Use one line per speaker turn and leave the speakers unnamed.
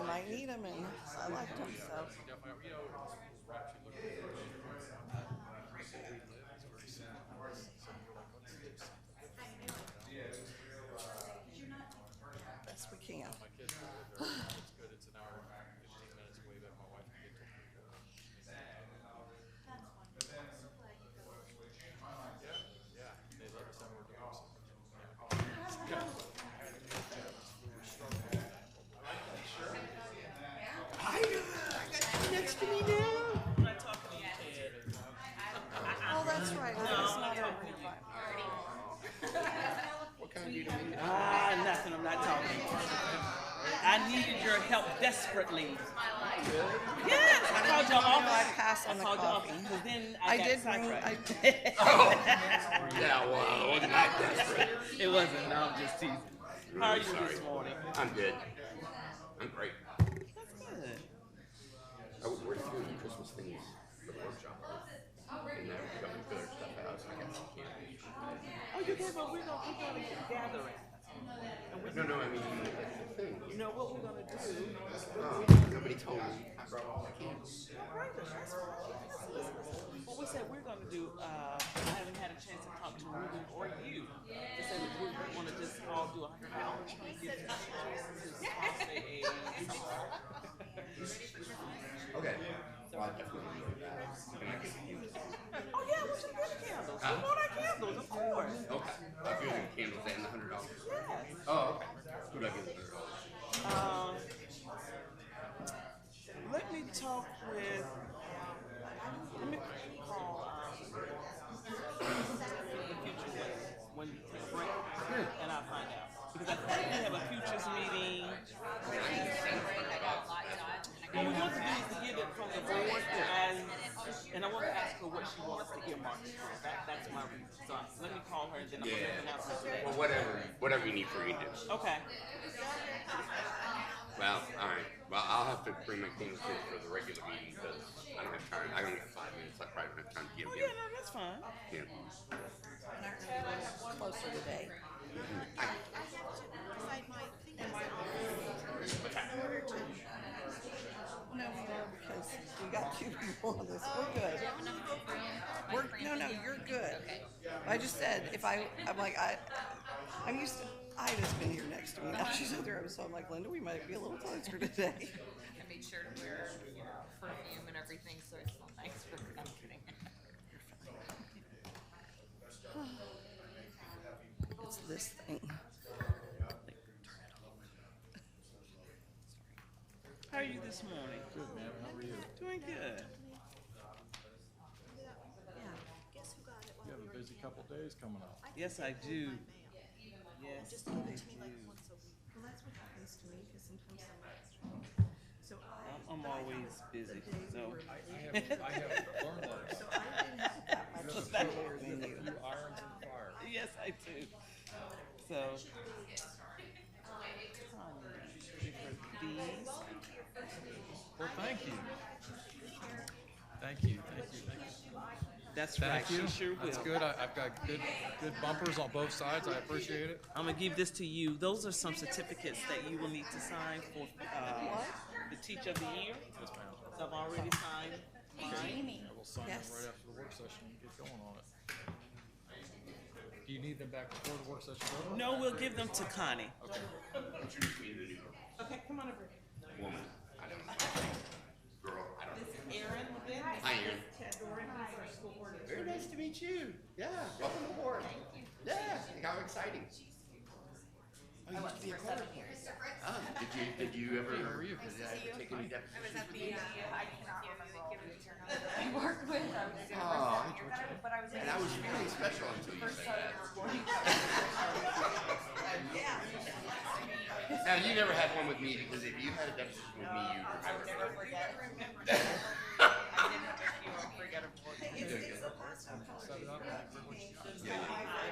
him and I liked him, so.
Definitely, you know, it's right to look at it.
Best we can.
My kids are there. It's good. It's an hour, and fifteen minutes away that my wife can get to. Yeah, yeah. They love us and we're doing something.
I got you next to me now.
I'm not talking to you, kid.
Oh, that's right. I was not over here by.
Ah, nothing. I'm not talking. to you. I needed your help desperately. Yes, I called
No,
your
I
office.
passed
I
on the
called your
coffee.
office because then I,
I
got
did ring,
sidetracked.
I did.
Oh.
Yeah, well, wasn't that desperate?
It wasn't. No, I'm just teasing. How are you this morning?
I'm good. I'm great.
That's good.
I was working through the Christmas things for the workshop. And I got my other stuff out, so I got some candy.
Oh, you did, but we're gonna we're gonna gathering.
No, no, I mean, that's the thing.
You know what we're gonna do?
Um, nobody told me. I brought all my candy.
What we said we're gonna do, uh, I haven't had a chance to talk to Ruben or you. To say that we wanna just all do a hundred dollars. Get your choices, say
Okay. Well, I definitely need that. And I can use it.
a- Oh, yeah, we should get candles. We want our candles, of course.
Okay. I'm using candles and the hundred dollars.
Yes.
Oh, okay. Who do I give the hundred dollars?
Um, let me talk with. Let me call. Um, in the future when, when you take a break, and I'll find out because I think we have a futures meeting. What we want to do is to get it from the board and and I want to ask her what she wants to earmark it for. That, that's my reason. So let me call her and then I'm gonna make an
Yeah.
announcement today.
Well, whatever, whatever you need for me to do.
Okay.
Well, all right. Well, I'll have to bring my things in for the regular meeting because I don't have time. I only have five minutes. I probably don't have time to
Oh
give you.
yeah, no, that's fine.
Yeah.
Closer today. No, no, because we got two people on this. We're good. We're, no, no, you're good. I just said, if I, I'm like, I, I'm used to, Ida's been here next to me. Now she's over there. So I'm like, Linda, we might be a little closer today.
I made sure to wear you know, perfume and everything, so it's not nice for I'm kidding.
It's this thing.
How are you this morning? Good, ma'am. How are you? Doing good.
Guess who got it while
You have
we
a
were in
busy
Tampa?
couple days coming up.
I think
Yes,
they
I
go by
do.
mail.
Yes,
Just
they
give it to me like
do.
once a week.
Well, that's what happens to me, because sometimes I'm So I.
I'm, I'm always busy, so.
I have, I have learned that.
So I didn't have that much.
Put that over in you.
Few irons in the fire.
Yes, I do. So. Tanya, give her these.
Well, thank you. Thank you, thank you, thank you.
That's right,
Thank
she
you.
sure
That's
will.
good. I, I've got good, good bumpers on both sides. I appreciate it.
I'm gonna give this to you. Those are some certificates that you will need to sign for, uh, the Teacher of the Year.
Yes, ma'am.
So I've already signed mine.
I will sign them
Yes.
right after the work session and get going on it. Do you need them back before the work session? over?
No, we'll give them to Connie.
Okay.
Introduce me to the new
Okay, come on over.
woman. I don't know. Girl, I don't know.
Erin, then.
Hi, Aaron. Very nice to meet you. Yeah, welcome aboard. Yeah, how exciting. Oh, you used to be a clerk. Oh, did you, did you ever, did I ever take any depositions?
at the, I cannot remember all the people I worked with, I was
Oh, I enjoyed you.
but I was
And I was really special until you said that. Now, you never had one with me because if you had a deposition with me, you remember.
forget. I didn't, you won't forget, of course.
You're doing good.
Set it up.
Yeah, yeah.